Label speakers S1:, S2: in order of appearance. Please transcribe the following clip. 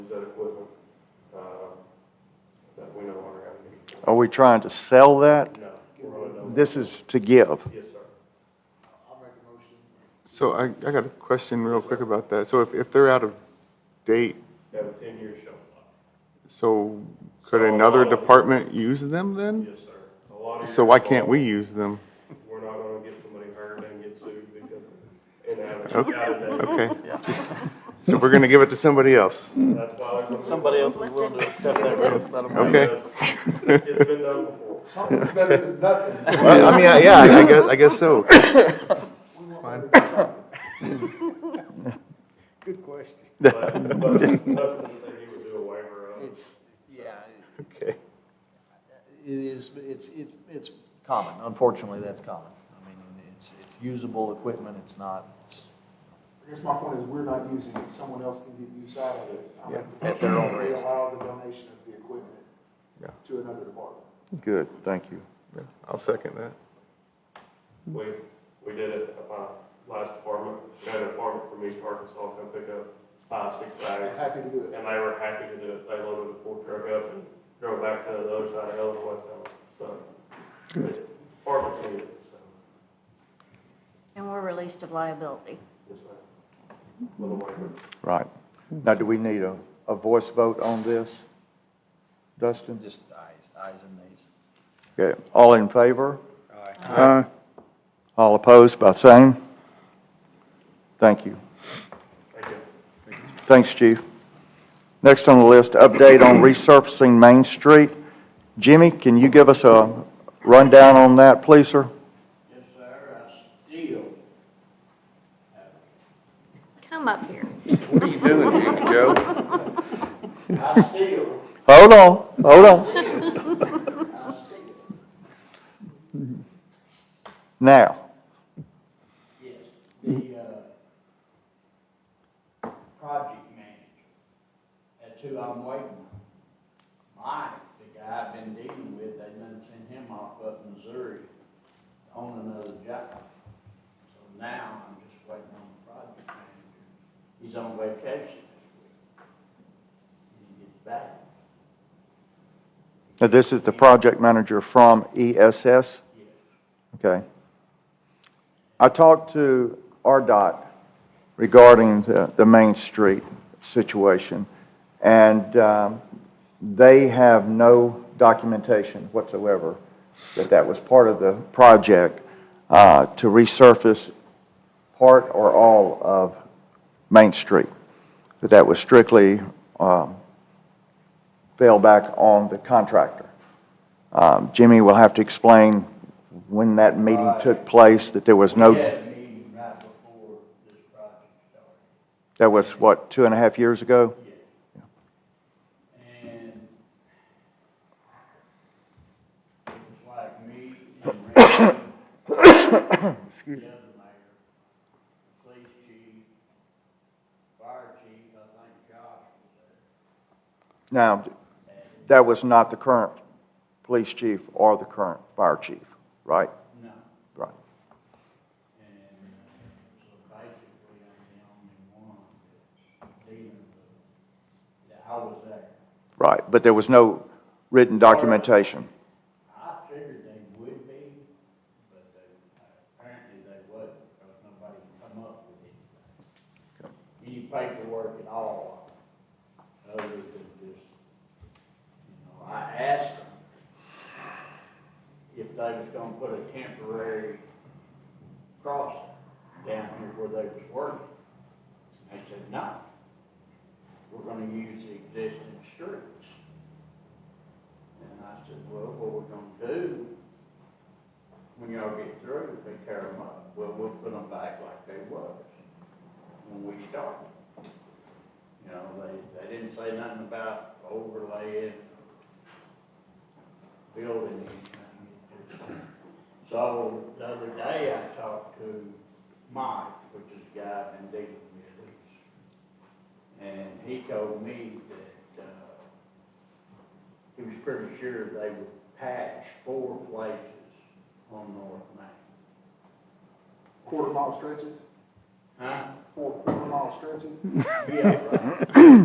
S1: that equipment, um, that we no longer have need for.
S2: Are we trying to sell that?
S1: No, we're on a no.
S2: This is to give.
S1: Yes, sir.
S3: So I, I got a question real quick about that. So if, if they're out of date,
S1: They Have a ten-year shelf life.
S3: so could
S1: So-
S3: another department use them then?
S1: Yes, sir. A lot of
S3: So
S1: your-
S3: why can't we use them?
S1: We're not gonna get somebody hurt and get sued because, and out of,
S3: Okay.
S1: out of that.
S3: Okay, just, so we're gonna give it to somebody else?
S1: That's why there's. gonna be-
S4: Somebody else is willing to accept that risk, Madam Mayor.
S3: Okay.
S1: It's been done before.
S5: Something's better than nothing.
S3: Well, I mean, I- yeah, I guess, I guess so.
S5: Good question.
S1: But, but Dustin said he would do a waiver of,
S4: It's, yeah,
S3: Okay.
S4: it is, it's, it- it's common, unfortunately, that's common. I mean, it's, it's usable equipment, it's not, it's
S5: I guess my point is, we're not using it, someone else can get use out of it. I mean,
S4: Yeah, at their own
S5: We
S4: risk.
S5: allow the donation of the equipment
S3: Yeah.
S5: to another department.
S2: Good, thank you.
S3: Yeah, I'll second that.
S1: we, we did it, uh, last department, we had a department from East Arkansas come pick up five, six
S5: I'm
S1: bags.
S5: happy to do it.
S1: And they were happy to do it, they loaded the full truck up and drove back to the other side of Ellis West Ellis, so. it's Department needed, so,
S6: And we're released of liability.
S1: yes, ma'am. Little waiver.
S2: Right. Now, do we need a, a voice vote on this? Dustin?
S4: just eyes, eyes and nays.
S2: Okay, all in favor? Aye. All opposed by same? Thank you.
S1: Thank you.
S2: Thanks, Chief. Next on the list, update on resurfacing Main Street. Jimmy, can you give us a rundown on that, please, sir?
S7: Yes, sir, I still,
S6: Come up here.
S3: What are you doing, Jimmy Joe?
S7: I still,
S2: Hold on, hold on.
S7: I still,
S2: Now,
S7: yes, the, uh, project manager, that's who I'm waiting on. Mike, the guy I've been dealing with, they done sent him off up in Missouri on another job. So now I'm just waiting on the project manager. He's on vacation this week. When he gets back,
S2: now this is the project manager from ESS?
S7: yes.
S2: Okay. I talked to RDOT regarding the, the Main Street situation, and um, they have no documentation whatsoever that that was part of the project uh, to resurface part or all of Main Street, that that was strictly um, fell back on the contractor. Um, Jimmy will have to explain when that meeting took place, that there was
S7: We
S2: no,
S7: had a meeting right before this project started.
S2: that was, what, two and a half years ago?
S7: And it was like me and Randy, the other mayor, police chief, fire chief, I think Josh was there.
S2: Now, that was not the current police chief or the current fire chief, right?
S7: No,
S2: Right.
S7: and uh, so basically I'm the only one that's dealing with, that I was there.
S2: Right, but there was no written documentation.
S7: I figured they would be, but they, apparently they wasn't, because nobody could come up with anything. Any paperwork at all, other than just, you know, I asked them if they was gonna put a temporary crossing down here where they was working. And they said, no, we're gonna use the existing streets. And I said, well, what we're gonna do, when y'all get through, they tear them up, well, we'll put them back like they was when we started. You know, they, they didn't say nothing about overlaying, building anything. So the other day I talked to Mike, which is a guy I've been dealing with, and he told me that, uh, he was pretty sure they would patch four places on North Main.
S5: Quarter mile stretches,
S7: Huh?
S5: four quarter mile stretches.
S7: Yeah, right.